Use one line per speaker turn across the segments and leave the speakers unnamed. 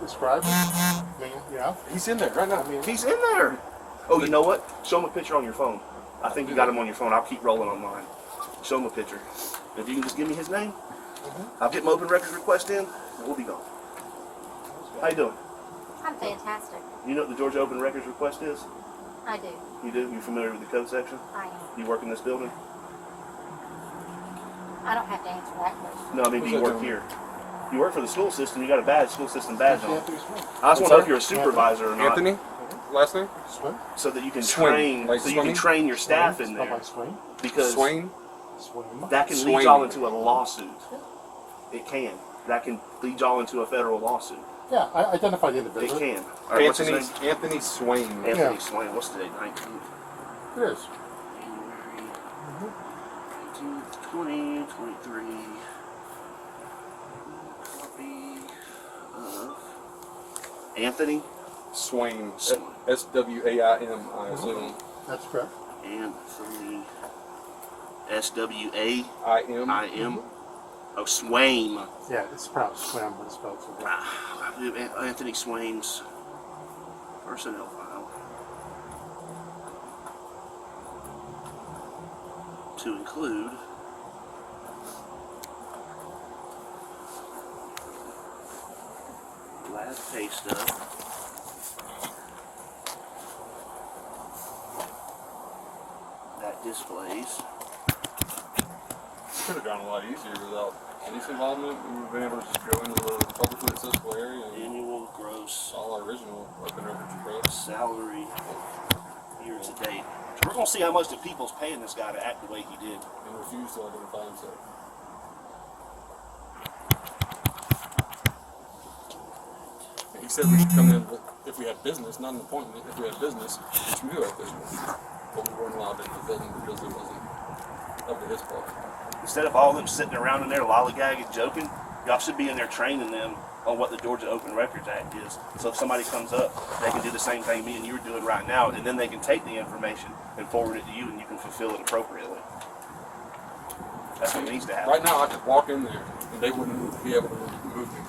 described. I mean, yeah.
He's in there right now. He's in there. Oh, you know what? Show him a picture on your phone. I think you got him on your phone. I'll keep rolling on mine. Show him a picture. If you can just give me his name, I'll get my open records request in, and we'll be gone. How you doing?
I'm fantastic.
You know what the Georgia Open Records request is?
I do.
You do? You familiar with the code section?
I am.
You work in this building?
I don't have to answer that question.
No, I mean, do
Who's
you
that
work
doing?
here? You work for the school system. You got a badge, school system badge on.
Anthony Swim.
I just want to know if you're a
What's that?
supervisor or not,
Anthony? Last name?
Swim?
so that you can
Swing,
train,
like
so you
swimming?
can train your staff in
Spelled
there,
like swing.
because
Swain?
Swim.
that can lead
Swing.
y'all into a lawsuit. It can. That can lead y'all into a federal lawsuit.
Yeah, I identify the
It
individual.
can. All right, what's his
Anthony,
name?
Anthony Swain.
Anthony
Yeah.
Swain. What's today? Nineteenth.
It is.
Twenty twenty-three. Copy of Anthony
Swain.
Swain.
S W A I M, I assume.
That's correct.
Anthony S W A
Mm-hmm. I M.
I M.
Mm-hmm.
Oh, Swain.
Yeah, it's pronounced swim, but it's spelled swim.
Ah, Anthony Swain's personnel file to include last pay stub. That displays
Could have gone a lot easier without police involvement. We would have been able to just go into the publicly accessible area
annual gross
all our original open records requests.
salary year to date. So we're gonna see how much the people's paying this guy to act the way he did.
and refuse to identify himself. He said we should come in with- if we had business, not an appointment. If we had business, which we do have business, but we weren't allowed into the building because it wasn't up to his part.
Instead of all them sitting around in there lollygagging, joking, y'all should be in there training them on what the Georgia Open Records Act is. So if somebody comes up, they can do the same thing me and you are doing right now, and then they can take the information and forward it to you, and you can fulfill it appropriately. That's what needs to happen.
Right now, I could walk in there and they wouldn't be able to move me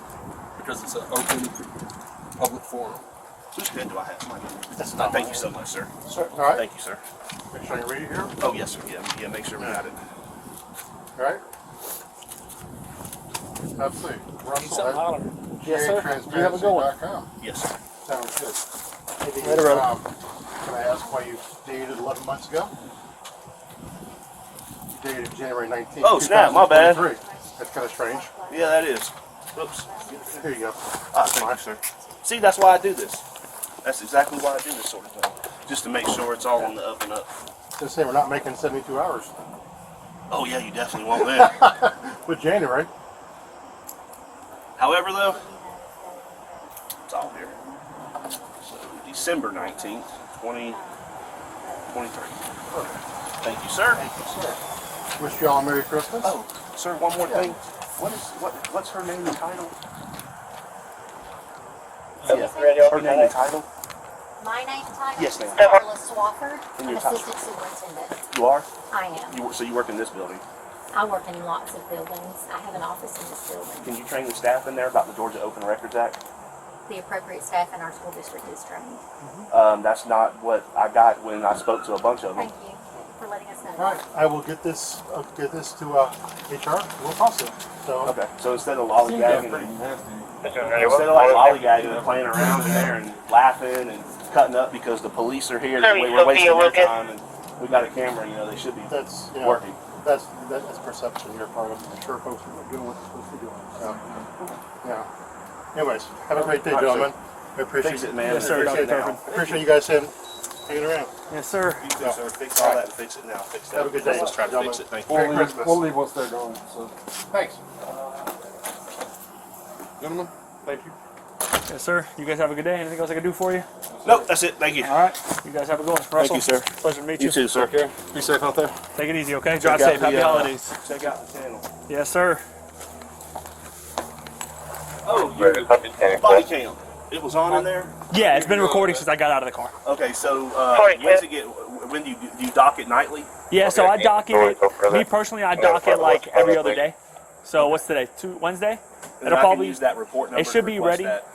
because it's an open public forum.
Whose pen do I have? Mine. Thank you so much, sir.
Sir, all right.
Thank you, sir.
Make sure you read it here.
Oh yes, sir. Yeah, yeah. Make sure we got it.
All right. Let's see. Russell at
Yes, sir.
GA
You have a good one.
transparency.com.
Yes, sir.
Sounds good.
Later, brother.
Um, Can I ask why you dated 11 months ago? You dated January 19th.
Oh, snap, my bad.
2023. That's kind of strange.
Yeah, that is. Oops.
Here you go.
Ah, thank you, sir. See, that's why I do this. That's exactly why I do this sort of thing, just to make sure it's all on the up and up.
Just say we're not making 72 hours.
Oh yeah, you definitely won't that.
With January,
However, though, it's all here. So December nineteenth, twenty twenty-three. Thank you, sir.
wish you all a Merry Christmas.
Oh, sir, one more thing. What is what? What's her name and title? Her name and title.
My name tag
Yes,
is
ma'am.
Carla Swafford.
And
I'm
your title?
assistant superintendent.
You are.
I am.
You wor- so you work in this building.
I work in lots of buildings. I have an office in this building.
Can you train the staff in there about the Georgia Open Records Act?
The appropriate staff in our school district is trained.
Um, that's not what I got when I spoke to a bunch of them.
Thank you for letting us know.
All right, I will get this, uh, get this to, uh, HR, we'll toss it, so.
Okay, so instead of
Seems to be
lollygagging,
pretty nasty.
instead of like lollygagging and playing around in there and laughing and cutting up because the police are here,
Sorry,
we were wasting their
Sophia Lucas.
time and we got a camera, you know, they should be.
That's, you know,
Working.
That's, that's perception here, part of, I'm sure folks are doing what they're supposed to be doing, so, yeah. Anyways, have a great day,
All right, sir.
gentlemen, I appreciate
Fix
it.
it, man.
Yes, sir.
Fix it
Dr.
now.
Turpin.
Appreciate you guys saying, hanging around.
Yes, sir.
You too, sir. Fix all that and fix it now. Fix that.
Have a good day.
Let's try to fix it. Thank you.
Merry
leave-
Christmas.
we'll leave once they're gone. So,
Thanks.
gentlemen, thank you.
Yes, sir. You guys have a good day. Anything else I can do for you?
Nope, that's it. Thank you.
All right. You guys have a good one. Russell,
you, sir.
Pleasure to meet you.
You too, sir.
Okay, be safe out there.
Take it easy, okay? Drive
out
safe.
the,
Happy
uh,
holidays.
Check out the channel.
Yes, sir.
Oh, your body cam. It was on in there?
Yeah, it's been recording since I got out of the car.
Okay, so, uh,
Sorry,
when's
sir.
it get, when do you, do you dock it nightly?
Yeah, so
Okay,
I dock
sorry,
it.
go further.
Me personally, I
Okay,
dock it
further,
like
further,
every other
please.
day. So what's today? Two Wednesday?
And then
It'll
I can
probably
use that report number
should
to
be
request
ready.
that.